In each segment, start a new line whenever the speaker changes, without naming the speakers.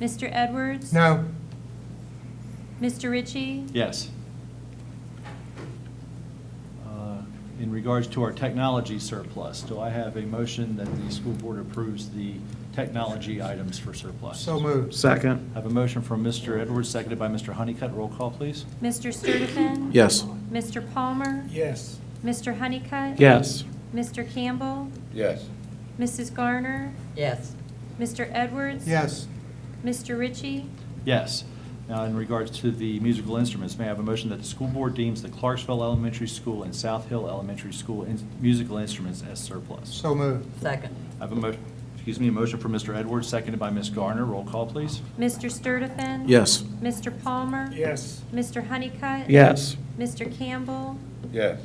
Mr. Edwards?
No.
Mr. Ritchie?
Yes. Uh, In regards to our technology surplus, do I have a motion that the school board approves the technology items for surplus?
So moved.
Second.
I have a motion from Mr. Edwards, seconded by Mr. Honeycutt. Roll call, please.
Mr. Sturtevant?
Yes.
Mr. Palmer?
Yes.
Mr. Honeycutt?
Yes.
Mr. Campbell?
Yes.
Mrs. Garner?
yes,
Mr. Edwards?
Yes.
Mr. Ritchie?
Yes. Now, in regards to the musical instruments, may I have a motion that the school board deems the Clarksville Elementary School and South Hill Elementary School in- musical instruments as surplus?
So moved.
second,
I have a mo, excuse me, a motion from Mr. Edwards, seconded by Ms. Garner. Roll call, please.
Mr. Sturtevant?
Yes.
Mr. Palmer?
Yes.
Mr. Honeycutt?
Yes.
Mr. Campbell?
Yes.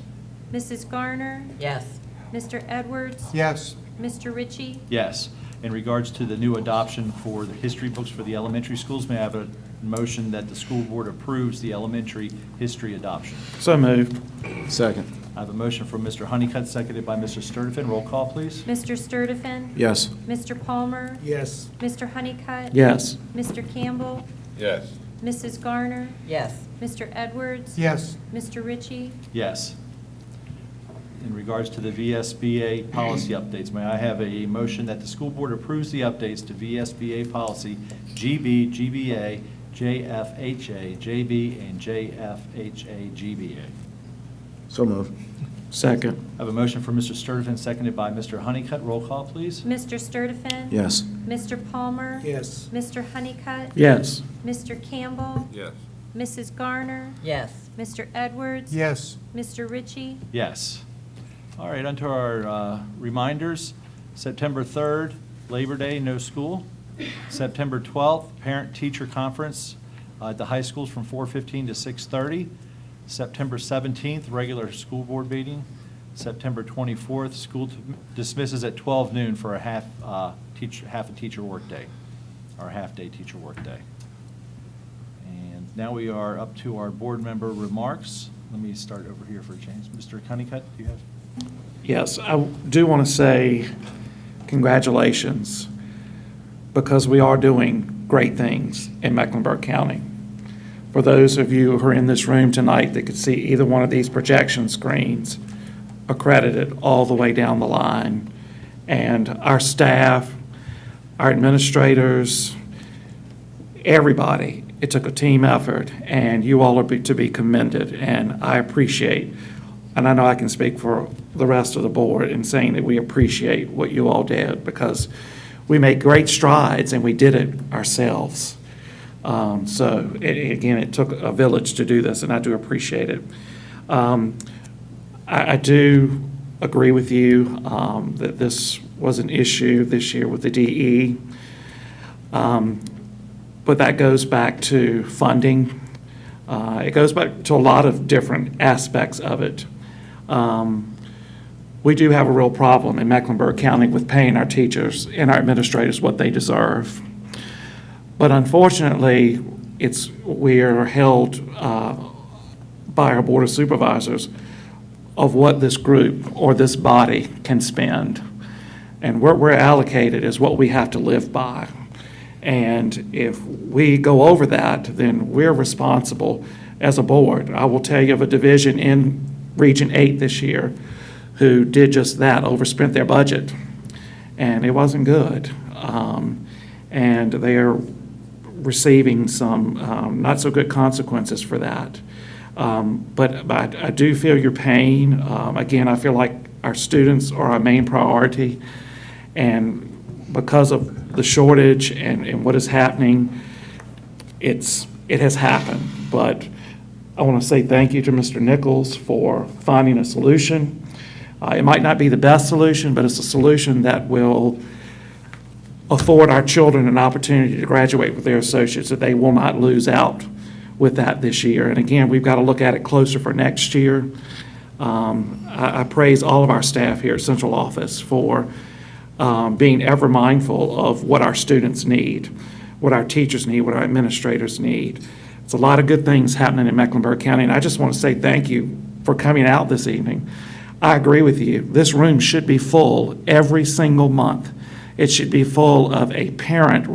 Mrs. Garner?
yes,
Mr. Edwards?
Yes.
Mr. Ritchie?
Yes. In regards to the new adoption for the history books for the elementary schools, may I have a motion that the school board approves the elementary history adoption?
So moved. Second.
I have a motion from Mr. Honeycutt, seconded by Mr. Sturtevant. Roll call, please.
Mr. Sturtevant?
Yes.
Mr. Palmer?
Yes.
Mr. Honeycutt?
Yes.
Mr. Campbell?
Yes.
Mrs. Garner?
yes,
Mr. Edwards?
Yes.
Mr. Ritchie?
Yes. In regards to the VSBA policy updates, may I have a motion that the school board approves the updates to VSBA policy GB, GBA, JFHA, JB, and JFHA, GBA?
So moved. Second.
I have a motion for Mr. Sturtevant, seconded by Mr. Honeycutt. Roll call, please.
Mr. Sturtevant?
Yes.
Mr. Palmer?
Yes.
Mr. Honeycutt?
Yes.
Mr. Campbell?
Yes.
Mrs. Garner?
yes,
Mr. Edwards?
Yes.
Mr. Ritchie?
Yes. All right, onto our uh, reminders. September 3rd, Labor Day, no school. September 12th, Parent-Teacher Conference uh, at the high schools from 4:15 to 6:30. September 17th, regular school board meeting. September 24th, school dismisses at 12 noon for a half, uh, teacher, half a teacher workday, or a half-day teacher workday. And now we are up to our board member remarks. Let me start over here for a change. Mr. Honeycutt, do you have?
Yes, I do want to say congratulations, because we are doing great things in Mecklenburg County. For those of you who are in this room tonight that could see either one of these projection screens, accredited all the way down the line. And our staff, our administrators, everybody. It took a team effort, and you all are be- to be commended, and I appreciate, and I know I can speak for the rest of the board in saying that we appreciate what you all did, because we made great strides, and we did it ourselves. Um, So, a- a- again, it took a village to do this, and I do appreciate it. Um, I, I do agree with you um, that this was an issue this year with the DE. Um, but that goes back to funding. Uh, It goes back to a lot of different aspects of it. Um, We do have a real problem in Mecklenburg County with paying our teachers and our administrators what they deserve. But unfortunately, it's, we are held uh, by our Board of Supervisors of what this group or this body can spend. And what we're allocated is what we have to live by. And if we go over that, then we're responsible as a board. I will tell you of a division in Region 8 this year who did just that, overspent their budget, and it wasn't good. Um, And they are receiving some um, not so good consequences for that. Um, But but I I do feel your pain. Um, Again, I feel like our students are our main priority, and because of the shortage and and what is happening, it's, it has happened. But I want to say thank you to Mr. Nichols for finding a solution. Uh, It might not be the best solution, but it's a solution that will afford our children an opportunity to graduate with their associates, that they will not lose out with that this year. And again, we've got to look at it closer for next year. Um, I I praise all of our staff here at central office for um, being ever mindful of what our students need, what our teachers need, what our administrators need. It's a lot of good things happening in Mecklenburg County, and I just want to say thank you for coming out this evening. I agree with you. This room should be full every single month. It should be full of a parent